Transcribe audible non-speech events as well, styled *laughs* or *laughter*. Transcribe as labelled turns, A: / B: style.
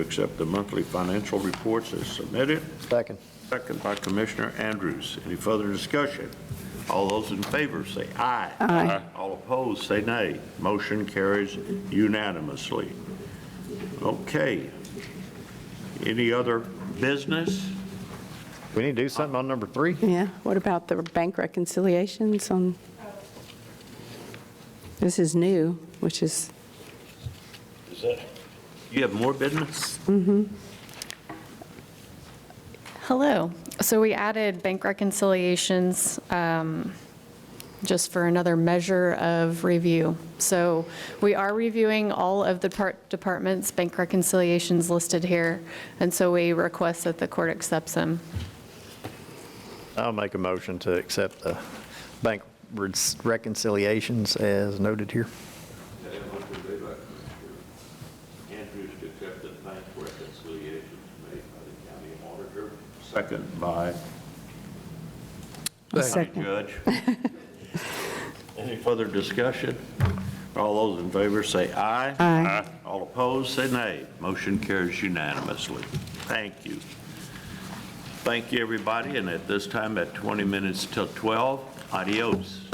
A: accept the monthly financial reports as submitted.
B: Second.
A: Second by Commissioner Andrews. Any further discussion? All those in favor say aye.
C: Aye.
A: All opposed, say nay. Motion carries unanimously. Okay. Any other business?
B: We need to do something on number three?
C: Yeah, what about the bank reconciliations on? This is new, which is,
A: Is that? You have more business?
D: Hello. So we added bank reconciliations um, just for another measure of review. So we are reviewing all of the depart- department's bank reconciliations listed here, and so we request that the court accepts them.
B: I'll make a motion to accept the bank reconciliations as noted here.
A: Andrews to accept the bank reconciliations made by the county auditor. Second by county
C: Second.
A: judge.
C: *laughs*
A: Any further discussion? All those in favor say aye.
C: Aye.
A: All opposed, say nay. Motion carries unanimously. Thank you. Thank you, everybody, and at this time, at 20 minutes till 12, adios.